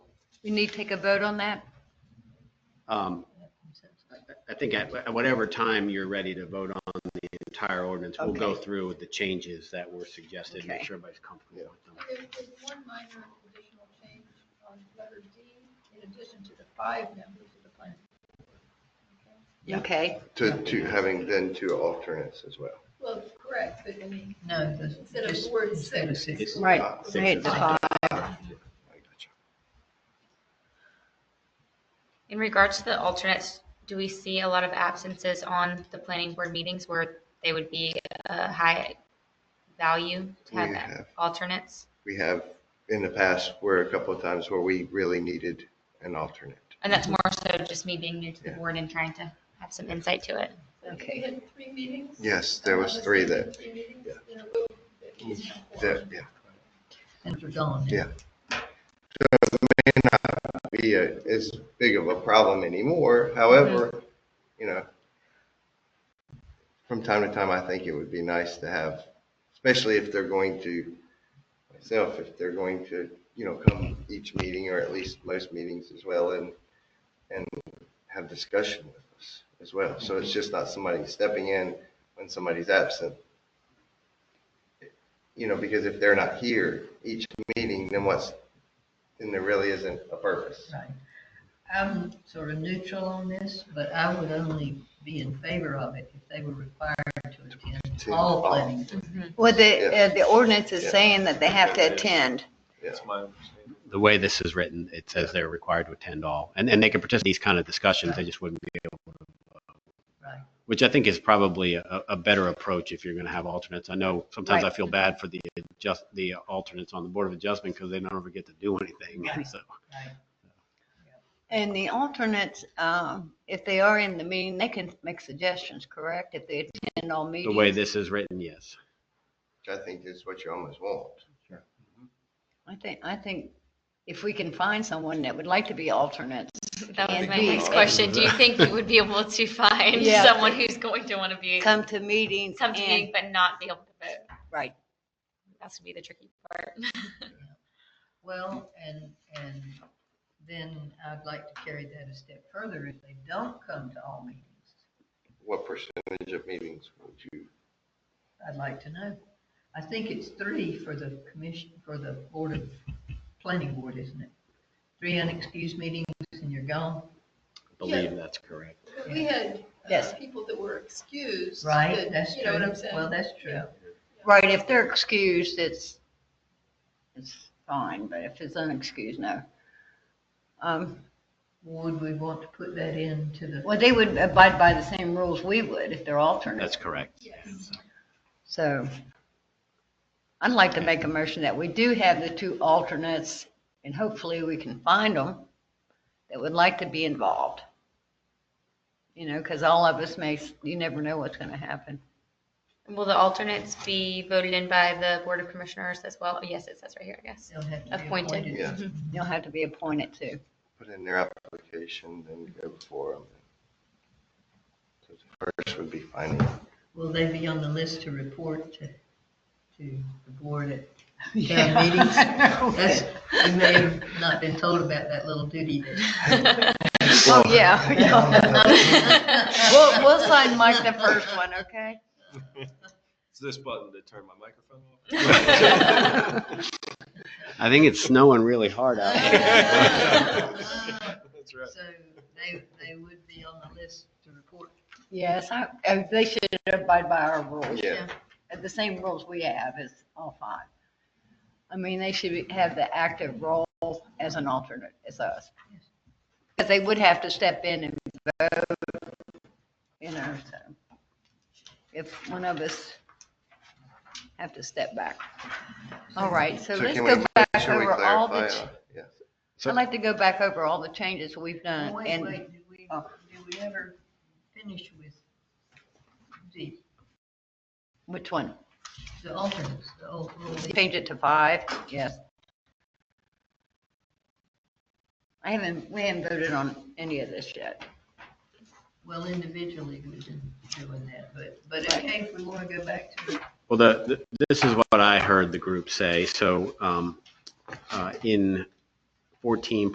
We need to take a vote on that? Um, I think at at whatever time you're ready to vote on the entire ordinance, we'll go Okay. through with the changes that were suggested, make Okay. sure everybody's comfortable with them. There's there's one minor additional change on letter D, in addition to the five members of the planning. board. Okay? Yeah. Okay, To, to having then two alternates as well. Well, correct, but I mean, No, that's instead of just- four and instead of six. six. right. Uh, Six Right, is the fine. five. I gotcha. In regards to the alternates, do we see a lot of absences on the planning board meetings where they would be a high value to We have have- alternates? We have in the past, were a couple of times where we really needed an alternate. And that's more so just me being new to the Yeah. board and trying to have some insight to it. Okay. We had three meetings? Yes, there was three that, Three meetings in a row that we didn't have that, quorum. yeah. Things are gone. Yeah. Be a- as big of a problem anymore. However, you know, from time to time, I think it would be nice to have, especially if they're going to, myself, if they're going to, you know, come each meeting or at least most meetings as well and, and have discussion with us as well. So it's just not somebody stepping in when somebody's absent. You know, because if they're not here each meeting, then what's, then there really isn't a purpose. Right. I'm sort of neutral on this, but I would only be in favor of it if they were required to attend To all all. planning. Well, the, Yeah. uh, the ordinance is Yeah. saying that they have to attend. That's my The way this is written, it says they're required to attend all, and, and they can participate in these kind of discussions, they just wouldn't be able, Right. which I think is probably a, a better approach if you're going to have alternates. I know sometimes I Right. feel bad for the, just, the alternates on the Board of Adjustment because they don't ever get to do anything, Right. so. Right. And the alternates, um, if they are in the meeting, they can make suggestions, correct? If they attend all The way meetings. this is written, yes. Which I think is what you almost want. I think, I think if we can find someone that would like to be alternates. That was and my be- next question. Do you think you would be able to find Yeah. someone who's going to want to be, Come to meetings come to meeting and, but not be able to vote? right. That's gonna be the tricky part. Well, and, and then I'd like to carry that a step further if they don't come to all meetings. What percentage of meetings would you, I'd like to know. I think it's three for the commission, for the board of, planning board, isn't it? Three unexcused meetings and you're gone, I believe that's correct. But we had uh, Yes. people that were excused. right? that- That's true. You know what I'm saying? Well, that's true. Right, if they're excused, it's, it's fine, but if it's unexcused, no. Um, Would we want to put that into the? Well, they would abide by the same rules we would if they're That's alternates, correct. Yes. so. I'd like to make a motion that we do have the two alternates, and hopefully we can find them that would like to be involved. You know, because all of us may, you never know what's going to happen. Will the alternates be voted in by the Board of Commissioners as well? Yes, it says right here, I guess. They'll have to be Appointed. yeah, You'll have to be appointed too. put in their application, then go before them? So the First would be finding, Will they be on the list to report to, to the board at Yeah. town meetings? That's, we may have not been told about that little duty Oh, yeah, yeah. that. We'll, we'll sign Mike the first one, okay? It's this button to turn my microphone off. I think it's snowing really hard out there. That's right. So they, they would be on the list to report. Yes, I, uh, they should abide by our rules. yeah, uh, the same rules we have as all five. I mean, they should be- have the active role as an alternate as us. Because they would have to step in and vote, you know, so. If one of us have to step back. All right, so So let's can go we- back should we over all the, clarify? ch- uh, Yeah. I'd like to go back over all the changes we've done Wait, Uh, and, wait, did we, oh. did we ever finish with the, which one? the alternates, the old rule? Change it to five, yes. I haven't, we haven't voted on any of this yet. Well, individually, we've been doing that, but, but okay, if we want to go back to Well, the, the- this is what I heard the group say. So um, uh, in 14